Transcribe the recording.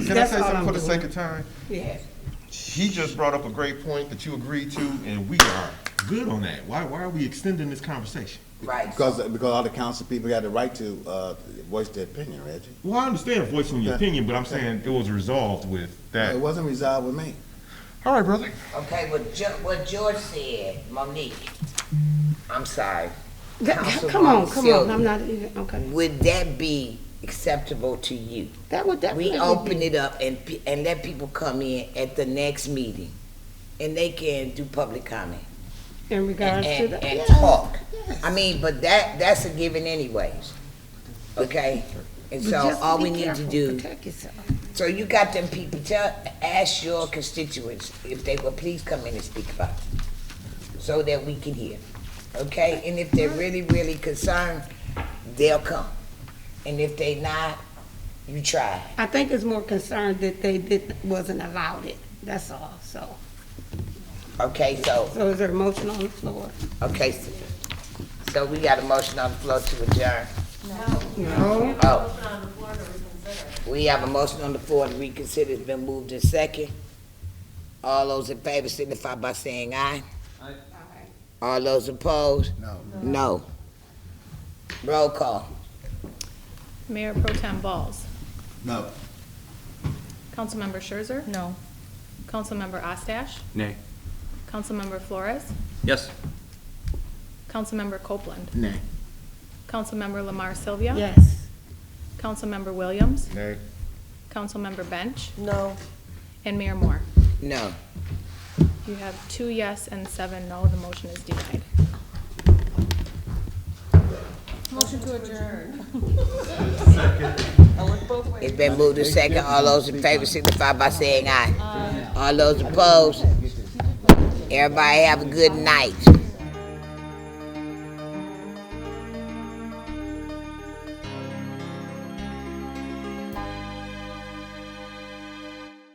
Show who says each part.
Speaker 1: Can I
Speaker 2: That's
Speaker 1: say
Speaker 2: all
Speaker 1: something
Speaker 2: I'm
Speaker 1: for the
Speaker 2: doing.
Speaker 1: sake of time?
Speaker 2: Yeah.
Speaker 1: He just brought up a great point that you agreed to, and we are good on that. Why, why are we extending this conversation?
Speaker 2: Right.
Speaker 3: Because, because all the council people got the right to, uh, voice their opinion, Reggie.
Speaker 1: Well, I understand voicing your
Speaker 3: Yeah.
Speaker 1: opinion, but I'm saying it was resolved with that.
Speaker 3: It wasn't resolved with me.
Speaker 1: All right, brother.
Speaker 4: Okay, what Jo- what George said, Monique, I'm sorry.
Speaker 2: Th- Come on, come on, I'm not even, okay.
Speaker 4: Would that be acceptable to you?
Speaker 2: That would definitely
Speaker 4: We
Speaker 2: be.
Speaker 4: open it up and, pe- and let people come in at the next meeting, and they can do public comment
Speaker 2: In regards to
Speaker 4: and,
Speaker 2: that.
Speaker 4: and
Speaker 2: yes.
Speaker 4: talk. I mean, but that, that's a given anyways, okay? And
Speaker 2: But
Speaker 4: so
Speaker 2: just
Speaker 4: all
Speaker 2: be
Speaker 4: we need to
Speaker 2: careful,
Speaker 4: do.
Speaker 2: Protect yourself.
Speaker 4: So you got them people, tell, ask your constituents if they will please come in and speak up, so that we can hear, okay? And if they're really, really concerned, they'll come. And if they not, you try.
Speaker 2: I think it's more concerned that they didn't, wasn't allowed it, that's all, so.
Speaker 4: Okay, so,
Speaker 2: So is there a motion on the floor?
Speaker 4: okay, so- so we got a motion on the floor to adjourn.
Speaker 2: No.
Speaker 4: Oh. We have a motion on the floor to reconsider, it's been moved in second. All those in favor signify by saying aye. Aye. All those opposed? No. No. Roll call.
Speaker 5: Mayor Pro Tem Balls.
Speaker 3: No.
Speaker 5: Councilmember Scherzer? No. Councilmember Ostache?
Speaker 6: Nay.
Speaker 5: Councilmember Flores?
Speaker 6: Yes.
Speaker 5: Councilmember Copeland?
Speaker 3: Nay.
Speaker 5: Councilmember Lamar Sylvia?
Speaker 2: Yes.
Speaker 5: Councilmember Williams?
Speaker 1: Nay.
Speaker 5: Councilmember Bench?
Speaker 4: No.
Speaker 5: And Mayor Moore?
Speaker 4: No.
Speaker 5: You have two yes and seven no. The motion is denied.
Speaker 4: It's been moved in second, all those in favor signify by saying aye. All those opposed? Everybody have a good night.